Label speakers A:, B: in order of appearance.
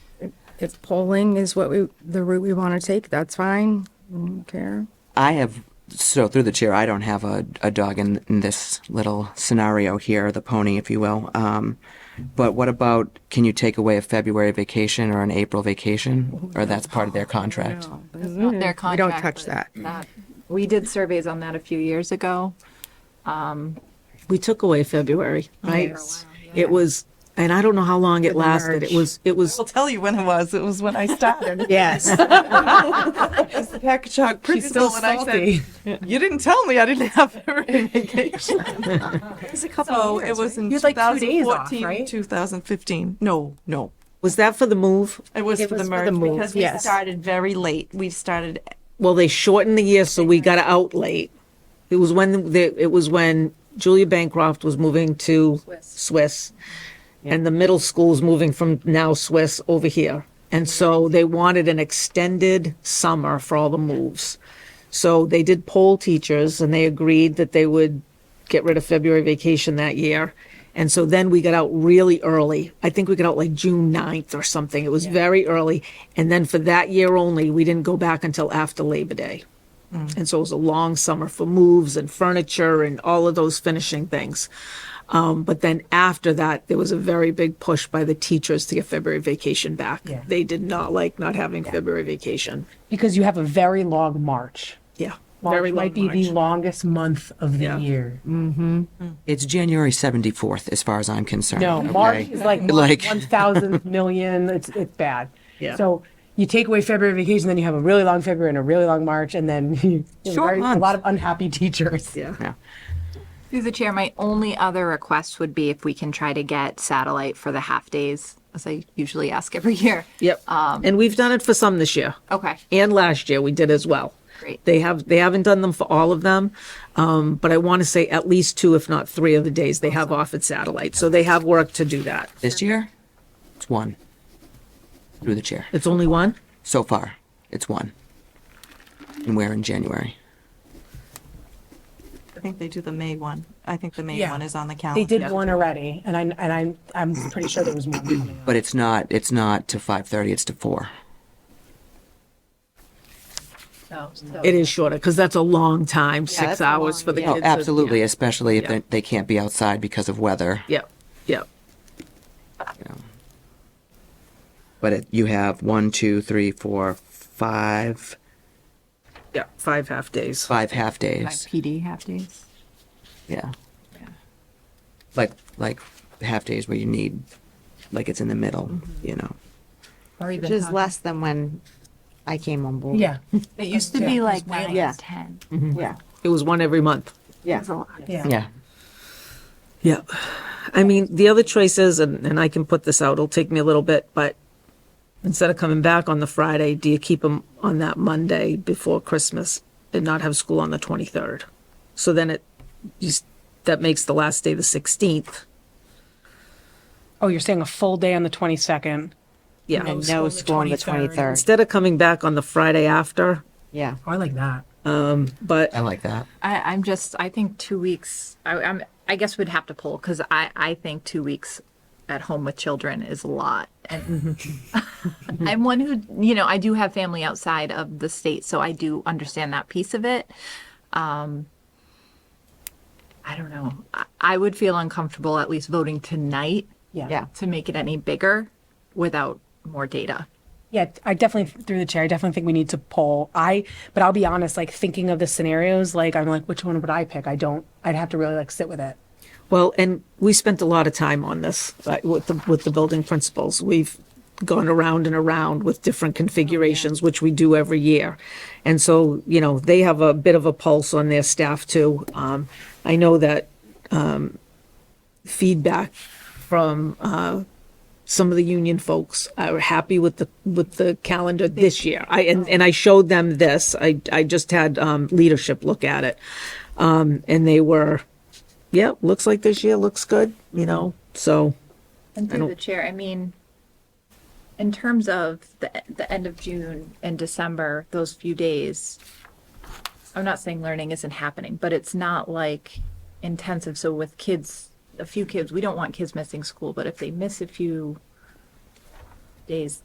A: if polling is what we, the route we want to take, that's fine. I don't care.
B: I have, so through the chair, I don't have a, a dog in, in this little scenario here, the pony, if you will. Um, but what about, can you take away a February vacation or an April vacation? Or that's part of their contract?
C: That's not their
A: We
C: contract.
A: don't touch
C: but
A: that.
C: that- We did surveys on that a few years ago.
D: we took away February, right?
C: yeah.
D: It was, and I don't know how long it
A: the
D: lasted.
A: merge.
D: It was, it was,
E: I'll tell you when it was. It was when I started.
A: Yes.
E: It's the package hog principal, and I
D: salty.
E: said, "You didn't tell me I didn't have every vacation." so it was in
D: You had like two days off,
E: 2014,
D: right?
E: 2015. No, no,
D: was that for the move?
E: it was
A: It
E: for
A: was
E: the
A: for
E: merge
A: the move,
E: because
A: yes.
E: we started very late. We started
D: Well, they shortened the year, so we got out late. It was when the, it was when Julia Bancroft was moving to Swiss, and the middle school was moving from now Swiss over here, and so they wanted an extended summer for all the moves. So they did poll teachers, and they agreed that they would get rid of February vacation that year. And so then we got out really early. I think we got out like June 9th or something. It was very early. And then for that year only, we didn't go back until after Labor Day. And so it was a long summer for moves and furniture and all of those finishing things. Um, but then after that, there was a very big push by the teachers to get February vacation back. They did not like not having February vacation.
F: because you have a very long March.
D: Yeah.
F: March
D: very long
F: might be
D: March.
F: the longest month of the
D: Yeah.
F: year.
B: It's January 74th, as far as I'm concerned.
F: No,
B: okay?
F: March is like,
B: Like-
F: one thousandth million. It's it's bad.
D: Yeah.
F: So you take away February vacation, then you have a really long February and a really long March, and then you know,
B: Short
F: very- a
B: month.
F: lot of unhappy teachers.
D: Yeah.
B: Yeah.
C: Through the chair, my only other request would be if we can try to get satellite for the half days, as I usually ask every year. Um,
D: Yep.
F: um,
D: and we've done it for some this year.
F: Oh.
C: Okay.
D: and last year we did as well.
C: Great.
D: They have they haven't done them for all of them, um, but I want to say at least two, if not three, of the days they have off at satellite. So they have work to do that.
B: This year, it's one. Through the chair.
D: It's only one.
B: So far, it's one. And we're in January.
E: I think they do the May one. I think the May
F: Yeah.
E: one is on the calendar.
F: They did one already, and I and I'm I'm pretty sure there was more coming up.
B: But it's not, it's not to 5:30, it's to four.
D: It is shorter because that's a long time,
C: that's
D: six
C: a
D: hours
C: long-
D: for the
C: yeah.
B: Oh,
D: kids.
B: absolutely, especially if
D: Yeah.
B: they, they can't be outside because of weather.
D: Yep. Yep.
B: But it, you have one, two, three, four, five,
D: Yep. Five half days.
B: five half
C: Like
B: days.
C: PD half days.
B: Yeah. Like like half days where you need, like it's in the middle, you know.
G: Which is less than when I came on board.
F: Yeah.
C: It used to be like nine
G: Yeah.
C: and ten.
G: Yeah.
D: It was one every month.
G: Yeah.
B: Yeah.
D: Yeah. I mean, the other choice is, and, and I can put this out, it'll take me a little bit, but instead of coming back on the Friday, do you keep them on that Monday before Christmas and not have school on the 23rd? So then it, you, s- that makes the last day the 16th.
F: Oh, you're saying a full day on the 22nd.
D: Yeah.
G: And no school on the 23rd.
D: Instead of coming back on the Friday after,
G: Yeah.
F: Oh, I like that.
D: but
B: I like that.
C: I, I'm just, I think two weeks, I, I'm, I guess we'd have to pull because I, I think two weeks at home with children is a lot. And I'm one who, you know, I do have family outside of the state, so I do understand that piece of it. Um, I don't know. I, I would feel uncomfortable at least voting tonight
G: Yeah.
C: to make it any bigger without more data.
F: Yeah, I definitely through the chair. I definitely think we need to poll. I, but I'll be honest. Like thinking of the scenarios, like I'm like, which one would I pick? I don't. I'd have to really like sit with it.
D: Well, and we spent a lot of time on this uh, with the, with the building principals. We've gone around and around with different configurations, which we do every year. And so, you know, they have a bit of a pulse on their staff too. Um, I know that, um, feedback from, uh, some of the union folks are happy with the, with the calendar this year. I, and, and I showed them this. I, I just had, um, leadership look at it. Um, and they were, yeah, looks like this year looks good, you know, so,
C: And through the chair, I mean, in terms of the, the end of June and December, those few days, I'm not saying learning isn't happening, but it's not like intensive. So with kids, a few kids, we don't want kids missing school, but if they miss a few days,